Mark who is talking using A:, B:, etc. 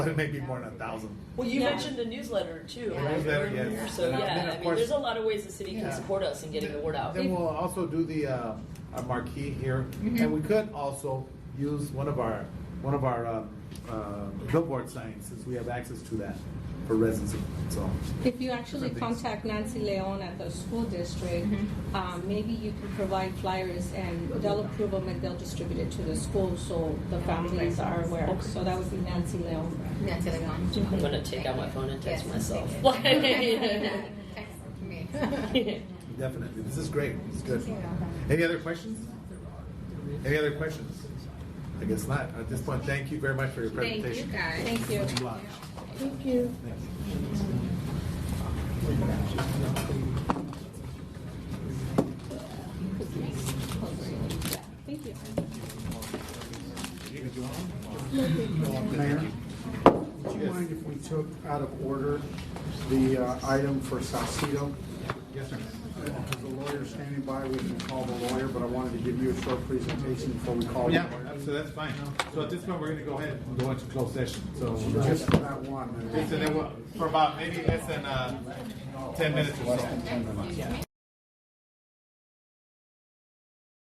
A: It may be more than a thousand.
B: Well, you
C: Yeah.
B: mentioned the newsletter too.
C: Yeah.
B: right?
A: Newsletter,
B: Earlier.
A: yes.
B: So
A: And, uh,
B: yeah,
A: then, of
B: I mean,
A: course-
B: there's a lot of ways the city can
A: Yeah.
B: support us in getting the word out.
A: Then we'll also do the, uh, our marquee here,
C: Mm-hmm.
A: and we could also use one of our, one of our, um, uh, billboard signs, since we have access to that for residency, so.
D: If you actually contact Nancy Leon at the school district, um, maybe you can provide flyers and they'll approve them and they'll distribute it to the school so the families are aware. So that would be Nancy Leon.
C: That's the one.
B: I'm gonna take out my phone and text
C: Yes.
B: myself.
C: Text me.
A: Definitely, this is great, it's good. Any other questions? Any other questions? I guess not, at this point, thank you very much for your
C: Thank you
A: presentation.
C: guys.
D: Thank you.
A: Much obliged.
D: Thank you. Thank you.
E: Mayor, would you mind if we took out of order the uh, item for Salcedo?
A: Yes, sir.
E: Because the lawyer's standing by, we can call the lawyer, but I wanted to give you a short presentation before we call the
A: Oh, Yeah,
E: lawyer.
A: so that's fine. So at this point, we're gonna go ahead and go into closed session, so.
E: Just for that one.
A: So then we'll- For about maybe less than, uh, ten minutes or so.